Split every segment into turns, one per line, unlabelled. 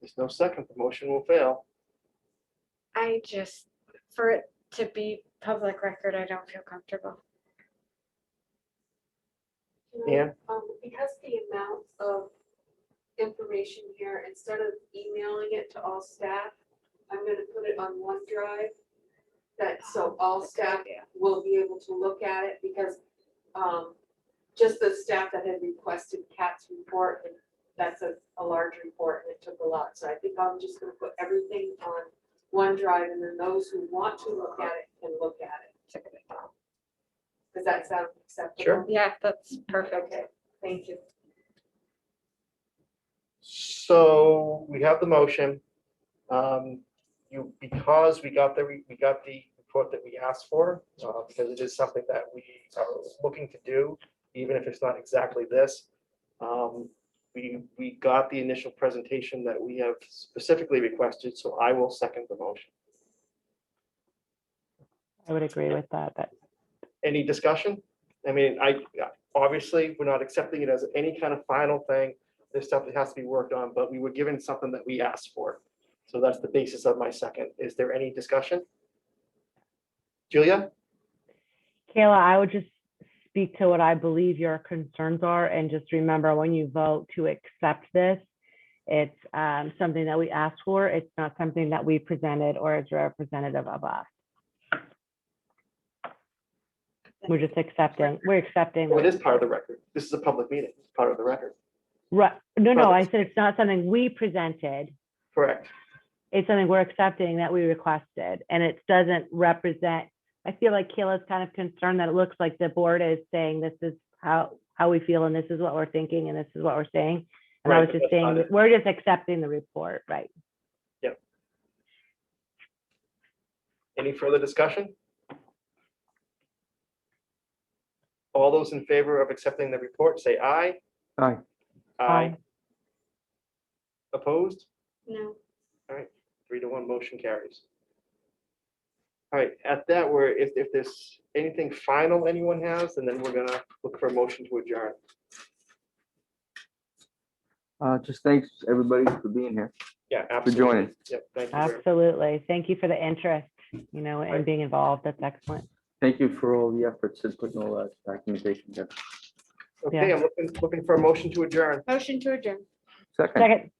There's no second, the motion will fail.
I just, for it to be public record, I don't feel comfortable.
Can I-
Ann?
Um, because the amount of information here, instead of emailing it to all staff, I'm gonna put it on OneDrive. That, so all staff will be able to look at it because, um, just the staff that had requested Kat's report, and that's a, a large report and it took a lot. So I think I'm just gonna put everything on OneDrive and then those who want to look at it can look at it. Does that sound acceptable?
Sure.
Yeah, that's perfect.
Okay, thank you.
So we have the motion. Um, You, because we got the, we got the report that we asked for, uh, because it is something that we are looking to do, even if it's not exactly this. Um, We, we got the initial presentation that we have specifically requested, so I will second the motion.
I would agree with that, that
Any discussion? I mean, I, obviously, we're not accepting it as any kind of final thing. There's stuff that has to be worked on, but we were given something that we asked for. So that's the basis of my second. Is there any discussion? Julia?
Kayla, I would just speak to what I believe your concerns are and just remember when you vote to accept this, it's um, something that we asked for. It's not something that we presented or is representative of us. We're just accepting, we're accepting.
Well, it is part of the record. This is a public meeting. It's part of the record.
Right, no, no, I
Perfect.
said it's not something we presented.
Correct.
It's something we're accepting that we requested and it doesn't represent. I feel like Kayla's kind of concerned that it looks like the board is saying this is how, how we feel and this is what we're thinking and this is what we're saying. And I
Right,
was
but
just
that's not
saying,
it.
that we're just accepting the report, right?
Any further discussion? All those in favor of accepting the report, say aye.
Aye.
Um,
Aye. Opposed?
No,
Three to one, motion carries. All right, at that, we're, if, if there's anything final anyone has, and then we're gonna look for a motion to adjourn.
Uh, just thanks, everybody, for being here.
Yeah,
For
absolutely.
joining.
Yep, thank you. very-
Absolutely. Thank you for the interest, you know,
Right.
and being involved. That's excellent.
Thank you for all the efforts and putting all that documentation together.
Okay, I'm looking, looking for a motion to adjourn.
motion to adjourn.
Second,
Second,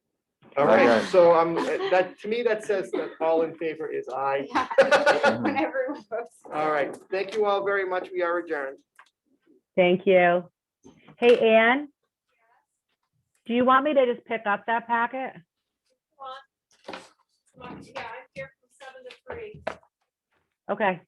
All right,
Adjourn.
so I'm, that, to me, that says that all in favor is aye.
Yeah. When everyone votes.
All right, thank you all very much. We are adjourned.
thank you. Hey, Ann? Do you want me to just pick up that packet?
Yeah, I'm here from seven to three.
Okay.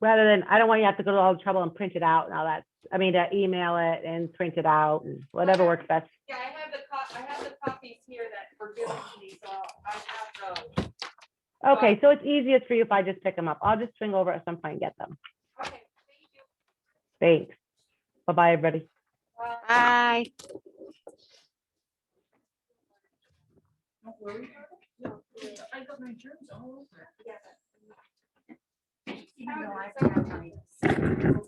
Rather than, I don't want you to have to go to all the trouble and print it out and all that. I mean, to email it and print it out and whatever works best.
Yeah, I have the cop, I have the copies here that were given to me, so I have those.
Okay, so it's easiest for you if I just pick them up. I'll just swing over at some point and get them.
Okay, thank you.
Thanks. Bye-bye, everybody.
Bye.
Bye.
Don't worry about it. No, I got my germs all over.
Yeah.
Even though I've got my-